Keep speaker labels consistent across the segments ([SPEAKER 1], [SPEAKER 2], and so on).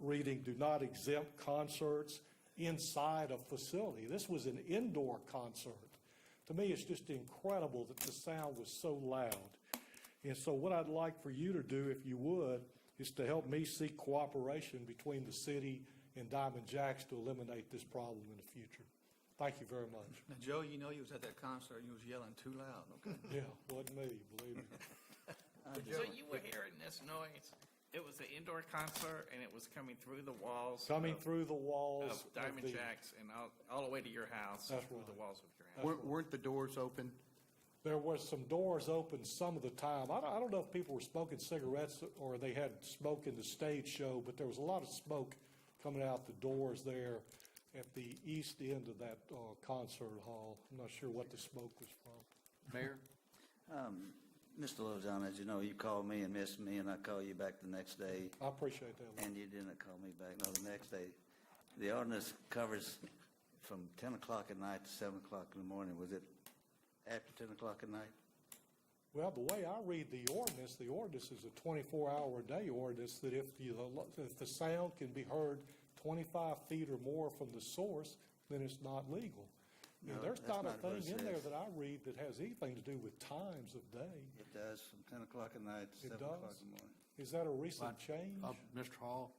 [SPEAKER 1] reading, do not exempt concerts inside a facility. This was an indoor concert. To me, it's just incredible that the sound was so loud. And so what I'd like for you to do, if you would, is to help me seek cooperation between the city and Diamond Jacks to eliminate this problem in the future. Thank you very much.
[SPEAKER 2] Now, Joe, you know you was at that concert, you was yelling too loud, okay?
[SPEAKER 1] Yeah, wasn't me, believe me.
[SPEAKER 3] So you were hearing this noise. It was an indoor concert, and it was coming through the walls.
[SPEAKER 1] Coming
[SPEAKER 3] of-
[SPEAKER 1] through the walls.
[SPEAKER 3] Of Diamond
[SPEAKER 1] the-
[SPEAKER 3] Jacks and all, all the way to your house.
[SPEAKER 1] That's
[SPEAKER 3] Through the
[SPEAKER 1] right.
[SPEAKER 3] walls of your house.
[SPEAKER 2] Weren't, weren't the doors open?
[SPEAKER 1] There was some doors open some of the time. I don't, I don't know if people were smoking cigarettes or they had smoke in the stage show, but there was a lot of smoke coming out the doors there at the east end of that uh, concert hall. I'm not sure what the smoke was from.
[SPEAKER 2] Mayor?
[SPEAKER 4] Um, Mr. Lozon, as you know, you called me and missed me, and I called you back the next day,
[SPEAKER 1] I appreciate that.
[SPEAKER 4] and you didn't call me back, no, the next day. The ordinance covers from 10 o'clock at night to 7 o'clock in the morning. Was it after 10 o'clock at night?
[SPEAKER 1] Well, the way I read the ordinance, the ordinance is a 24-hour-a-day ordinance that if the, if the sound can be heard 25 feet or more from the source, then it's not legal. And
[SPEAKER 4] No,
[SPEAKER 1] there's
[SPEAKER 4] that's
[SPEAKER 1] not a
[SPEAKER 4] not what it
[SPEAKER 1] thing in there
[SPEAKER 4] says.
[SPEAKER 1] that I read that has anything to do with times of day.
[SPEAKER 4] It does, from 10 o'clock at night to
[SPEAKER 1] It
[SPEAKER 4] 7 o'clock
[SPEAKER 1] does?
[SPEAKER 4] in the morning.
[SPEAKER 1] Is that a recent change?
[SPEAKER 5] Uh, Mr. Hall,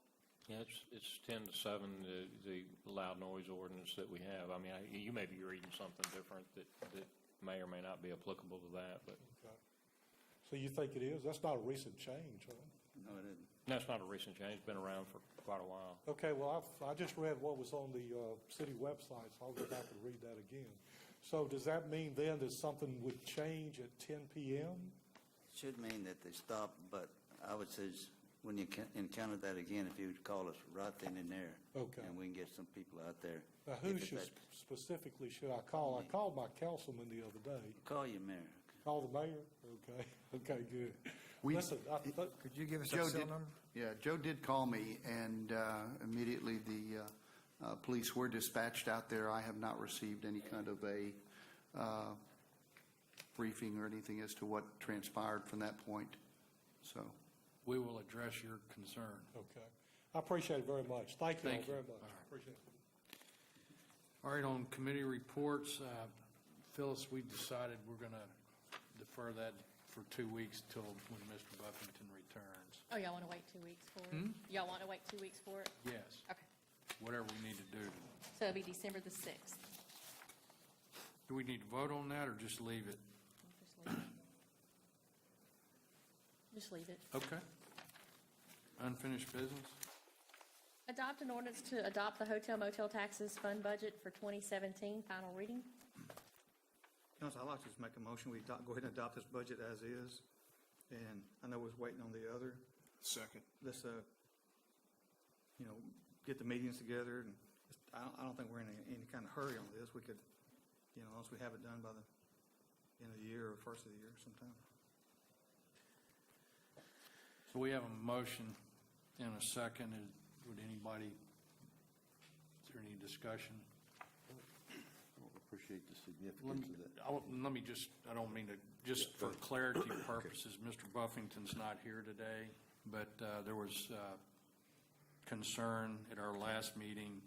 [SPEAKER 6] Yeah, it's, it's ten to seven, the, the loud noise ordinance that we have. I mean, I, you may be reading something different that, that may or may not be applicable to that, but
[SPEAKER 1] Okay. So you think it is? That's not a recent change, huh?
[SPEAKER 4] No, it isn't.
[SPEAKER 6] that's not a recent change, it's been around for quite a while.
[SPEAKER 1] Okay, well, I've, I just read what was on the, uh, city website, so I'll go back and read that again. So does that mean then that something would change at ten PM?
[SPEAKER 4] Should mean that they stop, but I would say, s- when you ca- encounter that again, if you would call us right then and there.
[SPEAKER 1] Okay.
[SPEAKER 4] And we can get some people out there.
[SPEAKER 1] Now, who
[SPEAKER 4] If it's
[SPEAKER 1] should,
[SPEAKER 4] that-
[SPEAKER 1] specifically should I call? I called my councilman the other day.
[SPEAKER 4] Call your mayor.
[SPEAKER 1] Call the mayor? Okay, okay, good.
[SPEAKER 5] We-
[SPEAKER 1] Listen, I, th-
[SPEAKER 7] Could you give us a
[SPEAKER 2] Joe
[SPEAKER 7] cell
[SPEAKER 2] did,
[SPEAKER 7] number?
[SPEAKER 2] yeah, Joe did call me, and uh, immediately the uh, uh, police were dispatched out there. I have not received any kind of a uh, briefing or anything as to what transpired from that point, so.
[SPEAKER 5] we will address your concern.
[SPEAKER 1] okay. I appreciate it very much. Thank you all
[SPEAKER 5] Thank you.
[SPEAKER 1] very much.
[SPEAKER 5] All right.
[SPEAKER 1] Appreciate it.
[SPEAKER 5] All right, on committee reports, uh, Phyllis, we decided we're going to defer that for two weeks till when Mr. Buffington returns.
[SPEAKER 8] Oh, y'all want to wait two weeks for
[SPEAKER 5] Hmm?
[SPEAKER 8] it? Y'all want to wait two weeks for it?
[SPEAKER 5] Yes,
[SPEAKER 8] Okay,
[SPEAKER 5] whatever we need to do.
[SPEAKER 8] so it'll be December the 6th.
[SPEAKER 5] Do we need to vote on that or just leave it?
[SPEAKER 8] Just leave it. Just leave it.
[SPEAKER 5] Okay. Unfinished business?
[SPEAKER 8] Adopt an ordinance to adopt the hotel motel taxes fund budget for 2017, final reading.
[SPEAKER 2] Council, I'd like to just make a motion, we adopt- go ahead and adopt this budget as is, and I know we're waiting on the other.
[SPEAKER 7] Second.
[SPEAKER 2] Let's, uh, you know, get the meetings together, and I don't, I don't think we're in any, any kind of hurry on this. We could, you know, once we have it done by the end of the year or first of the year sometime.
[SPEAKER 5] So we have a motion and a second. Is- Would anybody, is there any discussion?
[SPEAKER 4] Appreciate the
[SPEAKER 5] Let me,
[SPEAKER 4] significance
[SPEAKER 5] I won't- let me just, I don't mean to, just for clarity purposes, Mr. Buffington's not here today, but uh, there was uh, concern at our last meeting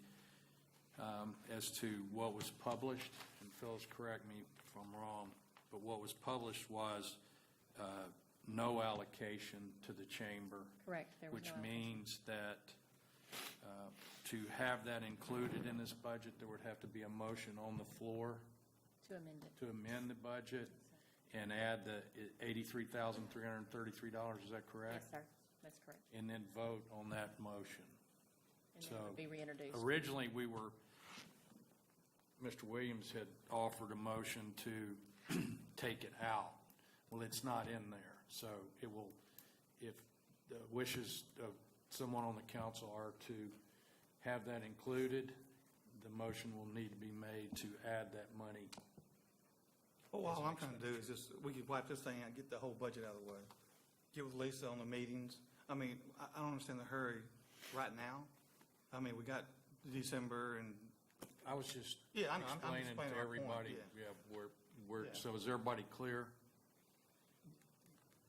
[SPEAKER 5] um, as to what was published, and Phyllis, correct me if I'm wrong, but what was published was uh, no allocation to the chamber.
[SPEAKER 8] Correct, there was
[SPEAKER 5] Which
[SPEAKER 8] no
[SPEAKER 5] means that uh, to have that included in this budget, there would have to be a motion on the floor
[SPEAKER 8] To amend it.
[SPEAKER 5] to amend the budget and add the eighty-three thousand, three hundred and thirty-three dollars, is that
[SPEAKER 8] Yes,
[SPEAKER 5] correct?
[SPEAKER 8] sir, that's correct.
[SPEAKER 5] And then vote on that motion.
[SPEAKER 8] And then it
[SPEAKER 5] So-
[SPEAKER 8] would be reintroduced.
[SPEAKER 5] Originally, we were, Mr. Williams had offered a motion to take it out. Well, it's not in there, so it will, if the wishes of someone on the council are to have that included, the motion will need to be made to add that money.
[SPEAKER 2] Well, all I'm trying to do is just, we could wipe this thing out, get the whole budget out of the way. Get with Lisa on the meetings. I mean, I, I don't understand the hurry right now. I mean, we got December and,
[SPEAKER 5] I was just
[SPEAKER 2] Yeah, I'm- I'm- I'm
[SPEAKER 5] explaining
[SPEAKER 2] explaining
[SPEAKER 5] to
[SPEAKER 2] our point,
[SPEAKER 5] everybody,
[SPEAKER 2] yeah.
[SPEAKER 5] yeah, where, where,
[SPEAKER 2] Yeah.
[SPEAKER 5] so is everybody clear?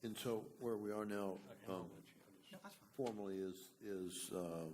[SPEAKER 9] And so where we are now um,
[SPEAKER 2] no, that's fine.
[SPEAKER 9] formally is, is uh,